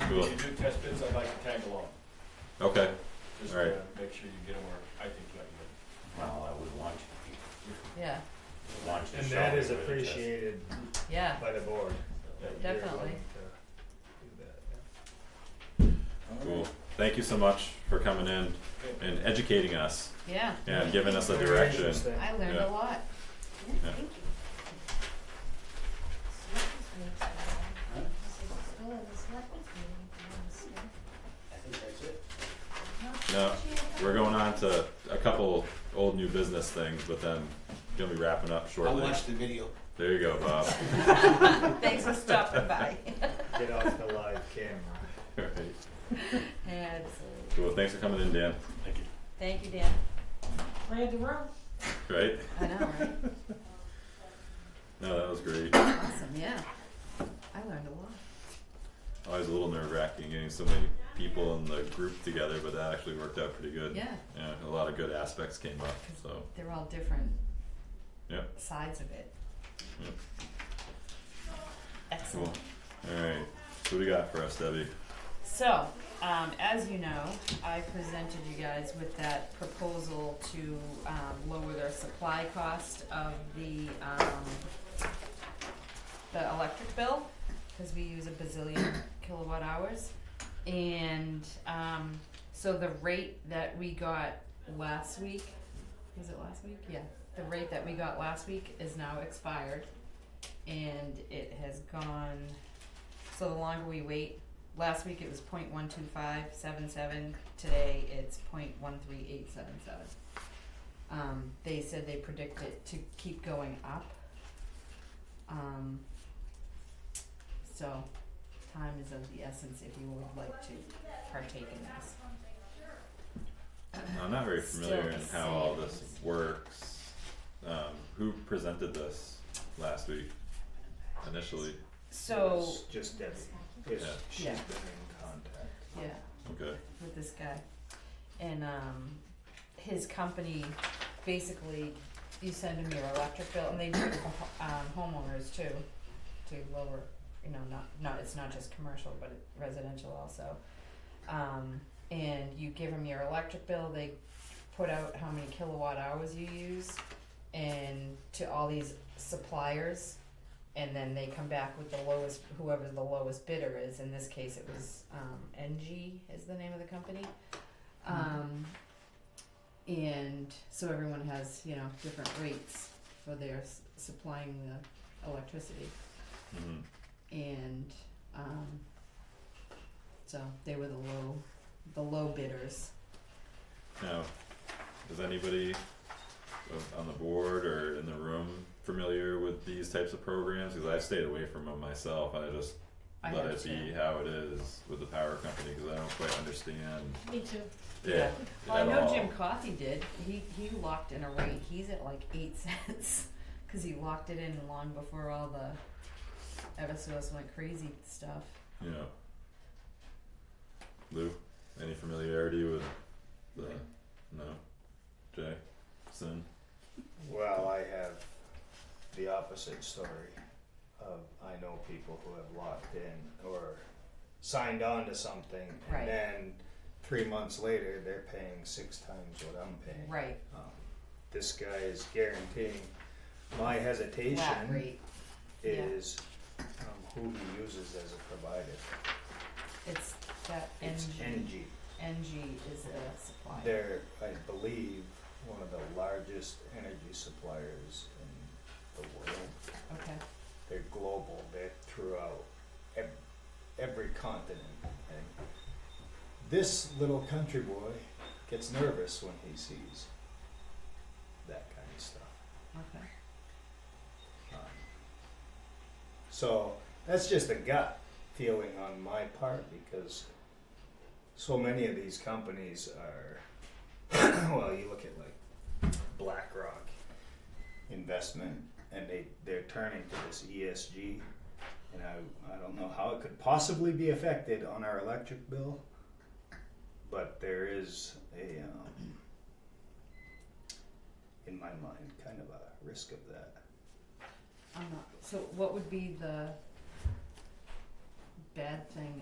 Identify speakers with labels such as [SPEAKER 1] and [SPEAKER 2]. [SPEAKER 1] Cool.
[SPEAKER 2] When you do test bits, I'd like to tag along,
[SPEAKER 1] Okay.
[SPEAKER 2] just
[SPEAKER 1] All right.
[SPEAKER 2] to make sure you get them where I think you ought
[SPEAKER 3] Well, I would want you
[SPEAKER 4] Yeah,
[SPEAKER 3] to, want you to
[SPEAKER 5] And
[SPEAKER 3] show
[SPEAKER 5] that
[SPEAKER 3] me
[SPEAKER 5] is
[SPEAKER 3] where the test-
[SPEAKER 5] appreciated
[SPEAKER 4] yeah,
[SPEAKER 5] by the board.
[SPEAKER 2] Yeah,
[SPEAKER 5] They're willing
[SPEAKER 4] definitely.
[SPEAKER 5] to do that, yeah.
[SPEAKER 1] Cool. Thank you so much for coming in
[SPEAKER 2] to be. Okay.
[SPEAKER 1] and educating us
[SPEAKER 4] yeah.
[SPEAKER 1] and giving us a
[SPEAKER 5] Very
[SPEAKER 1] direction.
[SPEAKER 5] interesting.
[SPEAKER 4] I learned
[SPEAKER 1] Yeah.
[SPEAKER 4] a lot.
[SPEAKER 1] Yeah.
[SPEAKER 6] Thank you. Selectmen's meeting's tomorrow. So it's still in the selectmen's meeting if you want to stay.
[SPEAKER 3] I think that's it.
[SPEAKER 1] No, we're going on to a couple old new business things, but then gonna be wrapping up shortly.
[SPEAKER 3] the video.
[SPEAKER 1] There you go, Bob.
[SPEAKER 4] Thanks for stopping by.
[SPEAKER 5] Get off the live camera.
[SPEAKER 1] All right.
[SPEAKER 4] Absolutely.
[SPEAKER 1] Cool. Thanks for coming in, Dan.
[SPEAKER 3] Thank you.
[SPEAKER 4] Thank you, Dan.
[SPEAKER 6] Read the room.
[SPEAKER 1] Right?
[SPEAKER 4] I know, right?
[SPEAKER 1] No, that was great.
[SPEAKER 4] Awesome, yeah. I learned a lot.
[SPEAKER 1] Always a little nerve wracking getting so many people in the group together, but that actually worked out pretty good.
[SPEAKER 4] Yeah,
[SPEAKER 1] Yeah, a lot of good aspects came up, so,
[SPEAKER 4] they're all different
[SPEAKER 1] yeah,
[SPEAKER 4] sides of it.
[SPEAKER 1] yeah, cool.
[SPEAKER 4] Excellent.
[SPEAKER 1] Alright, so what do you got for us, Debbie?
[SPEAKER 4] So, um, as you know, I presented you guys with that proposal to, um, lower their supply cost of the, um, the electric bill, cause we use a bazillion kilowatt hours. And, um, so the rate that we got last week, was it last week? Yeah, the rate that we got last week is now expired. And it has gone, so the longer we wait, Last week it was point one two five seven seven, today it's point one three eight seven seven. Um, they said they predict it to keep going up. Um, so, time is of the essence if you would like to partake in this.
[SPEAKER 1] I'm not very familiar in
[SPEAKER 4] Still the
[SPEAKER 1] how all
[SPEAKER 4] same.
[SPEAKER 1] this works. Um, who presented this last week initially?
[SPEAKER 4] So,
[SPEAKER 5] It's Just Debbie, 'cause
[SPEAKER 1] Yeah.
[SPEAKER 5] she's been
[SPEAKER 4] Yeah.
[SPEAKER 5] in contact.
[SPEAKER 4] yeah.
[SPEAKER 1] Okay,
[SPEAKER 4] with this guy. And um his company basically you send him your electric bill and they do it for ho- um homeowners too to lower you know, not not it's not just commercial but it- residential also. Um and you give them your electric bill, they put out how many kilowatt hours you use and to all these suppliers and then they come back with the lowest whoever the lowest bidder is in this case it was um, ng is the name of the company
[SPEAKER 6] Mm-hmm.
[SPEAKER 4] um, and so everyone has you know different rates for their s- supplying the electricity
[SPEAKER 1] mhm,
[SPEAKER 4] and um, so they were the low the low bidders
[SPEAKER 1] now, is anybody of- on the board or in the room familiar with these types of programs? Cause I've stayed away from them myself, I just
[SPEAKER 4] I
[SPEAKER 1] let it
[SPEAKER 4] understand.
[SPEAKER 1] be how it is with the power company, cause I don't quite understand,
[SPEAKER 6] Me too.
[SPEAKER 1] yeah,
[SPEAKER 4] Well, I
[SPEAKER 1] at
[SPEAKER 4] know
[SPEAKER 1] all.
[SPEAKER 4] Jim Coffey did. He he locked in a rate. He's at like eight cents because he locked it in long before all the Eversource went crazy stuff.
[SPEAKER 1] Yeah. Lou, any familiarity with the no? Jay, Sin.
[SPEAKER 5] Well, I have the opposite story of I know people who have locked in or signed on to something
[SPEAKER 4] Right.
[SPEAKER 5] and then three months later they're paying six times what I'm paying.
[SPEAKER 4] Right,
[SPEAKER 5] Um, this guy is guaranteeing my
[SPEAKER 4] flat
[SPEAKER 5] hesitation
[SPEAKER 4] rate. yeah.
[SPEAKER 5] is um, who he uses as a provider.
[SPEAKER 4] It's that
[SPEAKER 5] It's
[SPEAKER 4] NG.
[SPEAKER 5] NG.
[SPEAKER 4] NG is a supplier.
[SPEAKER 5] They're, I believe, one of the largest energy suppliers in the world.
[SPEAKER 4] Okay.
[SPEAKER 5] They're global. They're throughout ev- every continent. And this little country boy gets nervous when he sees that kind of stuff.
[SPEAKER 4] Okay.
[SPEAKER 5] Um, So that's just a gut feeling on my part because so many of these companies are, well, you look at like BlackRock investment and they, they're turning to this ESG. And I, I don't know how it could possibly be affected on our electric bill, but there is a, um, in my mind, kind of a risk of that.
[SPEAKER 4] I'm not. So, what would be the bad thing